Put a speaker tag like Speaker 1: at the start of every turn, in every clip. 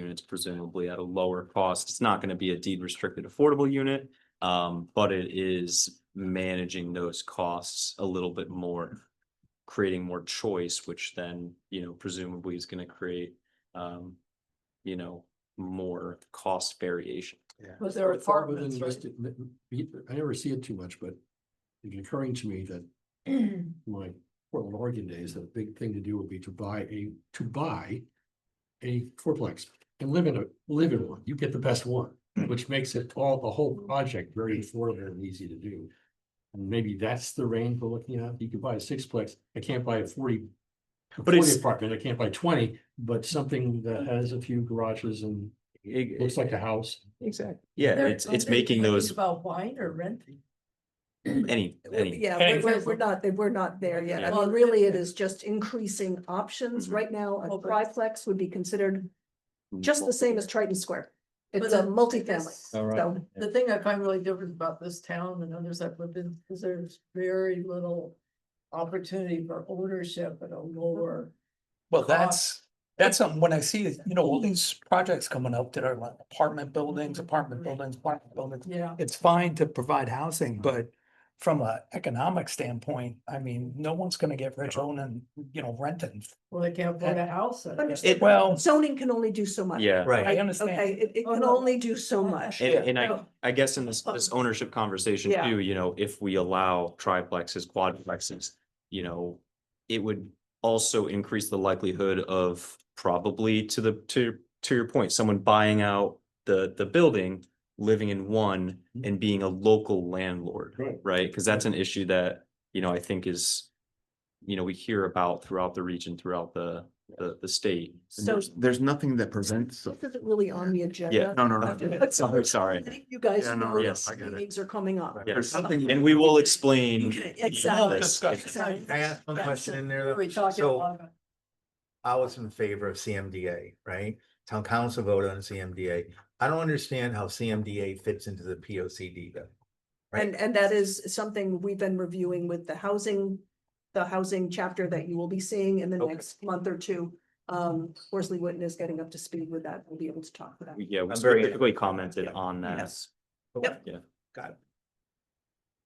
Speaker 1: units presumably at a lower cost. It's not gonna be a deed restricted affordable unit. Um, but it is managing those costs a little bit more. Creating more choice, which then, you know, presumably is gonna create, um, you know, more cost variation.
Speaker 2: But there are
Speaker 3: It's all within
Speaker 2: apartments, right?
Speaker 3: investi- m- m- I never see it too much, but it's occurring to me that my Portland, Oregon days, that a big thing to do would be to buy a, to buy a fourplex and live in a, live in one. You get the best one, which makes it all, the
Speaker 2: Mm-hmm.
Speaker 3: whole project very affordable and easy to do. And maybe that's the range we're looking at. You could buy a sixplex. I can't buy a forty a
Speaker 1: But it's-
Speaker 3: 40 apartment. I can't buy twenty, but something that
Speaker 2: Mm-hmm.
Speaker 3: has a few garages and looks like a house.
Speaker 1: Exactly. E-, Yeah,
Speaker 2: There-
Speaker 1: it's,
Speaker 2: are
Speaker 1: it's
Speaker 2: they
Speaker 1: making
Speaker 2: thinking
Speaker 1: those,
Speaker 2: About wine or renting?
Speaker 1: any, any,
Speaker 4: Yeah,
Speaker 5: Any-
Speaker 4: we're- we're, we're not, we're not there yet. I
Speaker 2: Well,
Speaker 4: mean, really, it is just increasing options.
Speaker 2: Mm-hmm.
Speaker 1: Mhm.
Speaker 4: Right now, a
Speaker 2: Well, but-
Speaker 4: triplex would be considered just the same as Triton Square. It's a
Speaker 2: But, uh,
Speaker 4: multifamily,
Speaker 2: Yes.
Speaker 1: Oh,
Speaker 5: All right.
Speaker 4: so
Speaker 2: The thing I find really different about this town and others I've lived in is there's very little opportunity for ownership at a lower.
Speaker 5: Well,
Speaker 2: cost.
Speaker 5: that's, that's something, when I see, it, you know, all these projects coming up that are like apartment buildings, apartment buildings, apartment buildings.
Speaker 2: Yeah.
Speaker 5: It's fine to provide housing, but from a economic standpoint, I mean, no one's gonna get rich owning, you know, renting.
Speaker 2: Well, they can't afford a house. I guess.
Speaker 4: Understood.
Speaker 5: Well,
Speaker 4: zoning can only do so much.
Speaker 1: yeah.
Speaker 5: I
Speaker 4: Okay,
Speaker 5: understand.
Speaker 4: it, it
Speaker 2: Oh,
Speaker 4: can
Speaker 2: no.
Speaker 4: only do so much.
Speaker 1: And, and I,
Speaker 2: No.
Speaker 1: I guess in this, this ownership conversation
Speaker 4: Oh. Yeah.
Speaker 1: too, you know, if we allow triplexes, quadplexes, you know, it would also increase the likelihood of probably to the, to, to your point, someone buying out the, the building, living in one
Speaker 4: Mm-hmm.
Speaker 3: Mhm.
Speaker 1: and being a local landlord,
Speaker 3: Right.
Speaker 1: right? Cause that's an issue that, you know, I think is, you know, we hear about throughout the region, throughout the, the, the state.
Speaker 6: And
Speaker 4: So
Speaker 6: There's, there's nothing that prevents.
Speaker 4: this isn't really on the
Speaker 1: Yeah.
Speaker 4: agenda.
Speaker 6: No, no, no.
Speaker 4: Okay.
Speaker 1: Sorry,
Speaker 4: I
Speaker 1: sorry.
Speaker 4: think you guys
Speaker 6: Yeah, no,
Speaker 4: know
Speaker 6: yeah,
Speaker 4: these
Speaker 6: I get it.
Speaker 4: meetings are coming up.
Speaker 6: There's
Speaker 1: Yes.
Speaker 6: something.
Speaker 1: And we will explain.
Speaker 4: Exactly.
Speaker 1: this.
Speaker 5: Discussion.
Speaker 4: Sorry.
Speaker 7: Can I ask one
Speaker 2: That's
Speaker 7: question
Speaker 2: it.
Speaker 7: in there?
Speaker 2: We We're
Speaker 7: though?
Speaker 2: talking
Speaker 7: So
Speaker 2: about. it.
Speaker 7: I was in favor of CMDA, right? Town council voted on CMDA. I don't understand how CMDA fits into the P O C D though. Right.
Speaker 4: And, and that is something we've been reviewing with the housing, the housing chapter that you will be seeing in the
Speaker 7: Okay.
Speaker 4: next month or two. Um, Worsley Witten is getting up to speed with that. We'll be able to talk about that.
Speaker 1: Yeah, we
Speaker 7: I'm very-
Speaker 1: specifically commented on that.
Speaker 4: Yes.
Speaker 7: Okay,
Speaker 1: Yeah.
Speaker 7: Got it.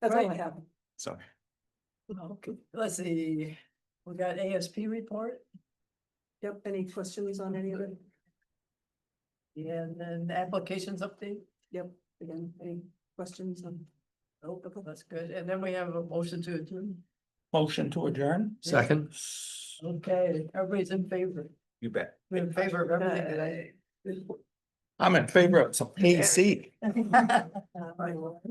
Speaker 4: That's all I
Speaker 2: Right.
Speaker 4: have.
Speaker 1: Sorry.
Speaker 2: Okay, let's see, we got ASP report
Speaker 4: Yep, any questions on any of it?
Speaker 2: and then applications update.
Speaker 4: Yep, again, any questions on?
Speaker 2: Oh, that's good. And then we have a motion to adjourn.
Speaker 5: Motion to adjourn?
Speaker 3: Second.
Speaker 2: Okay, everybody's in favor.
Speaker 7: you bet.
Speaker 2: We're in favor of
Speaker 4: Uh,
Speaker 2: everything today.
Speaker 5: I'm in favor of some AC.
Speaker 2: All right, well,